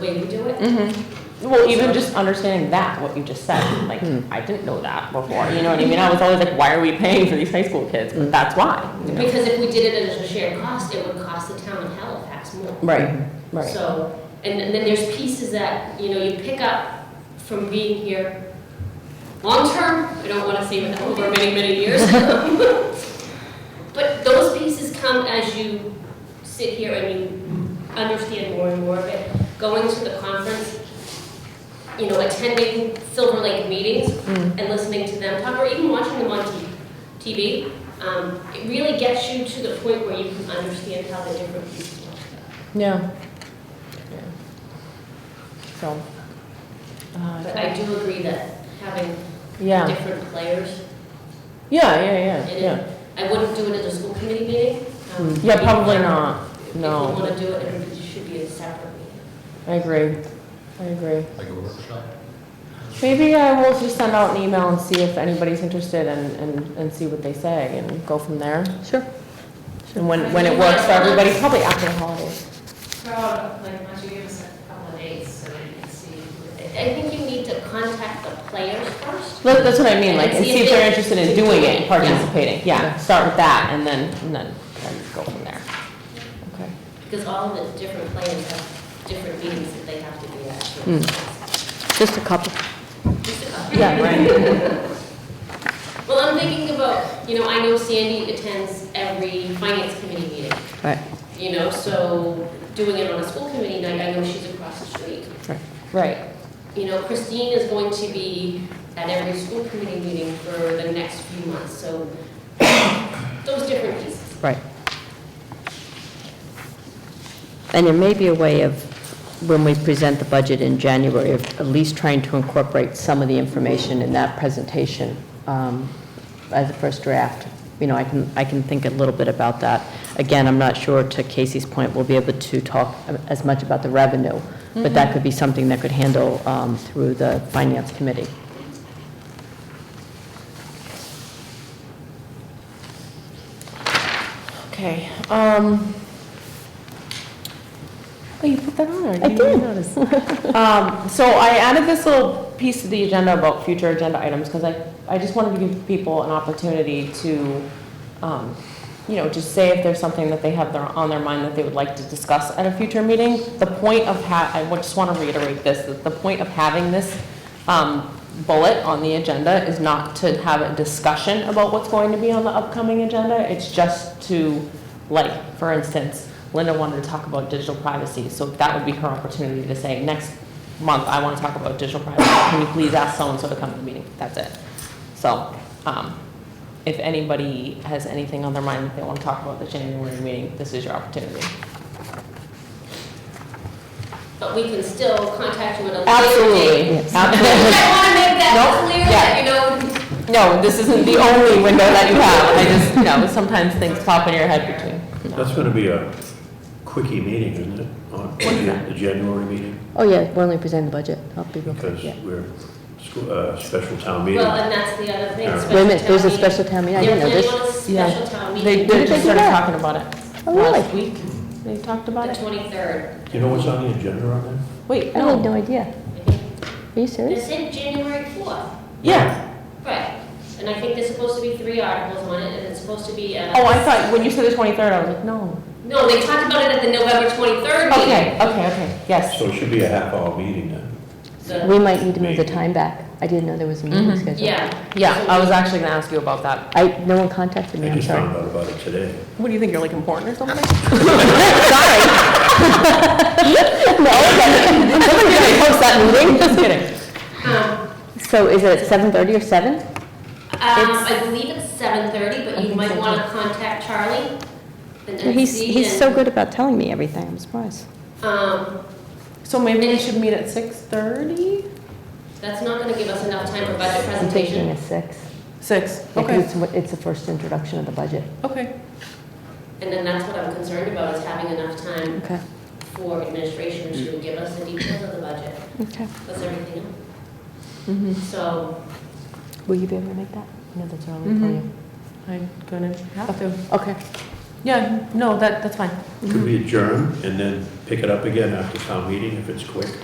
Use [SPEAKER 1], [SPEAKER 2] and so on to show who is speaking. [SPEAKER 1] way we do it.
[SPEAKER 2] Mm-hmm. Well, even just understanding that, what you just said, like, I didn't know that before, you know what I mean? I was always like, why are we paying for these high school kids? But that's why. you know?
[SPEAKER 1] Because if we did it as a shared cost, it would cost the town in Halifax more.
[SPEAKER 2] Right, right.
[SPEAKER 1] So, and and then there's pieces that, you know, you pick up from being here long-term, I don't want to say with over many, many years. But those pieces come as you sit here and you understand more and more of it. Going to the conference, you know, attending Silver Lake meetings and listening to them talk, or even watching them on T- TV, um, it really gets you to the point where you can understand how the different pieces work.
[SPEAKER 2] Yeah. Yeah. So. uh,
[SPEAKER 1] But I do agree that having
[SPEAKER 2] Yeah,
[SPEAKER 1] different players
[SPEAKER 2] yeah, yeah, yeah,
[SPEAKER 1] in
[SPEAKER 2] yeah. Hmm.
[SPEAKER 1] it, I wouldn't do it at the school committee meeting. um,
[SPEAKER 2] Yeah, probably not.
[SPEAKER 1] If we
[SPEAKER 2] No.
[SPEAKER 1] want to do it, it should be a separate meeting.
[SPEAKER 2] I agree. I agree.
[SPEAKER 3] Like a workshop?
[SPEAKER 2] Maybe I will just send out an email and see if anybody's interested and, and, and see what they say and go from there.
[SPEAKER 4] Sure.
[SPEAKER 2] And when, when it works for everybody, probably after the holidays.
[SPEAKER 5] Throw out, like, why don't you give us a couple of dates so we can see?
[SPEAKER 1] I I think you need to contact the players first.
[SPEAKER 2] That- That's what I mean, like, and see if they're interested in doing it, and participating. Yeah, start with that and then, and then, then go from there. Okay.
[SPEAKER 1] Because all the different players have different meetings that they have to be
[SPEAKER 2] Hmm.
[SPEAKER 1] at.
[SPEAKER 4] Just a couple.
[SPEAKER 1] Just a couple.
[SPEAKER 2] Yeah, right.
[SPEAKER 1] Well, I'm thinking about, you know, I know Sandy attends every finance committee meeting,
[SPEAKER 4] Right.
[SPEAKER 1] you know, so doing it on a school committee night, I know she's across the street.
[SPEAKER 2] Right.
[SPEAKER 1] You know, Christine is going to be at every school committee meeting for the next few months, so those different pieces.
[SPEAKER 4] Right. And there may be a way of, when we present the budget in January, of at least trying to incorporate some of the information in that presentation um, as a first draft. You know, I can, I can think a little bit about that. Again, I'm not sure, to Casey's point, we'll be able to talk uh, as much about the revenue, but that could be something that could handle um, through the Finance Committee.
[SPEAKER 2] Okay, um. Oh, you put that on there?
[SPEAKER 4] I
[SPEAKER 2] didn't even
[SPEAKER 4] did.
[SPEAKER 2] notice. Um, so I added this little piece to the agenda about future agenda items, because I, I just wanted to give people an opportunity to, um, you know, just say if there's something that they have their, on their mind that they would like to discuss at a future meeting. The point of ha, I just want to reiterate this, that the point of having this, um, bullet on the agenda is not to have a discussion about what's going to be on the upcoming agenda, it's just to, like, for instance, Linda wanted to talk about digital privacy, so that would be her opportunity to say, next month, I want to talk about digital privacy, can you please ask so-and-so to come to the meeting? That's it. So, um, if anybody has anything on their mind that they want to talk about at the January meeting, this is your opportunity.
[SPEAKER 1] But we can still contact you at a later date.
[SPEAKER 2] Absolutely,
[SPEAKER 1] I
[SPEAKER 2] absolutely.
[SPEAKER 1] want to make that
[SPEAKER 2] Nope,
[SPEAKER 1] clear,
[SPEAKER 2] yeah.
[SPEAKER 1] that, you know,
[SPEAKER 2] No, this isn't the only window that you have, I just, you know, sometimes things pop in your head between.
[SPEAKER 6] That's gonna be a quickie meeting, isn't it? On
[SPEAKER 2] that?
[SPEAKER 6] The January meeting,
[SPEAKER 4] Oh, yeah, we're only presenting the budget. I'll be real quick,
[SPEAKER 6] because
[SPEAKER 4] yeah.
[SPEAKER 6] we're, scho- uh, special town meeting.
[SPEAKER 1] well, uh, and that's the other thing.
[SPEAKER 6] Yeah.
[SPEAKER 1] special
[SPEAKER 4] Wait a minute, there's a
[SPEAKER 1] town
[SPEAKER 4] special town meeting, I
[SPEAKER 1] meeting.
[SPEAKER 4] didn't know
[SPEAKER 1] They're
[SPEAKER 4] this.
[SPEAKER 1] planning on a
[SPEAKER 2] Yeah.
[SPEAKER 1] special town
[SPEAKER 2] They,
[SPEAKER 1] meeting,
[SPEAKER 4] When
[SPEAKER 2] they
[SPEAKER 4] did
[SPEAKER 2] just
[SPEAKER 4] they do
[SPEAKER 2] started
[SPEAKER 4] that?
[SPEAKER 2] talking about it
[SPEAKER 4] Oh,
[SPEAKER 2] last week, they talked
[SPEAKER 1] the
[SPEAKER 2] about it.
[SPEAKER 1] 23rd.
[SPEAKER 6] You know what's on the agenda on that?
[SPEAKER 2] Wait,
[SPEAKER 4] I had
[SPEAKER 2] no,
[SPEAKER 4] no idea. Are
[SPEAKER 1] They
[SPEAKER 4] you serious?
[SPEAKER 1] said January 4th,
[SPEAKER 2] yeah.
[SPEAKER 1] right. And I think there's supposed to be three articles on it, and it's supposed to be, uh,
[SPEAKER 2] Oh, I thought, when you said the twenty-third, I was like, no.
[SPEAKER 1] no, they talked about it at the November 23rd meeting.
[SPEAKER 2] Okay, okay, okay, yes.
[SPEAKER 6] So it should be a half hour meeting then.
[SPEAKER 1] The-
[SPEAKER 4] We might need to move the time back. I didn't know there was a meeting
[SPEAKER 2] Mhm.
[SPEAKER 4] scheduled.
[SPEAKER 1] Mm-hmm, Yeah.
[SPEAKER 2] Yeah, I was actually gonna ask you about that.
[SPEAKER 4] I, no one contacted me,
[SPEAKER 6] I
[SPEAKER 4] I'm
[SPEAKER 6] just found
[SPEAKER 4] sorry.
[SPEAKER 6] out about it today.
[SPEAKER 2] What, do you think you're like important or something?
[SPEAKER 4] No, I'm going to post that meeting.
[SPEAKER 2] Just kidding.
[SPEAKER 1] Um,
[SPEAKER 4] So is it at 7:30 or 7?
[SPEAKER 1] um, I believe it's seven thirty,
[SPEAKER 4] I
[SPEAKER 1] but you
[SPEAKER 4] think
[SPEAKER 1] might
[SPEAKER 4] so,
[SPEAKER 1] wanna contact Charlie. the
[SPEAKER 4] He's,
[SPEAKER 1] NC,
[SPEAKER 4] he's so
[SPEAKER 1] and,
[SPEAKER 4] good about telling me everything, I'm surprised.
[SPEAKER 1] Um,
[SPEAKER 2] So maybe we should meet at six-thirty?
[SPEAKER 1] that's not gonna give us enough time for budget
[SPEAKER 4] I'm taking
[SPEAKER 1] presentation,
[SPEAKER 4] a 6.
[SPEAKER 2] Six,
[SPEAKER 4] Yeah, 'cause
[SPEAKER 2] okay,
[SPEAKER 4] it's what- It's the first introduction of the budget.
[SPEAKER 2] okay.
[SPEAKER 1] and then that's what I'm concerned about, is having enough time
[SPEAKER 4] Okay,
[SPEAKER 1] for administration to give us the details of the budget,
[SPEAKER 4] okay.
[SPEAKER 1] plus everything else.
[SPEAKER 2] Mm-hmm.
[SPEAKER 1] So, Mm-hmm.
[SPEAKER 4] Will you be able to make that? No, that's early for
[SPEAKER 2] Mhm.
[SPEAKER 4] you.
[SPEAKER 2] I'm gonna have to.
[SPEAKER 4] Okay.
[SPEAKER 2] Yeah, no, that, that's fine.
[SPEAKER 6] Could we adjourn and then pick it up again after town meeting if it's quick?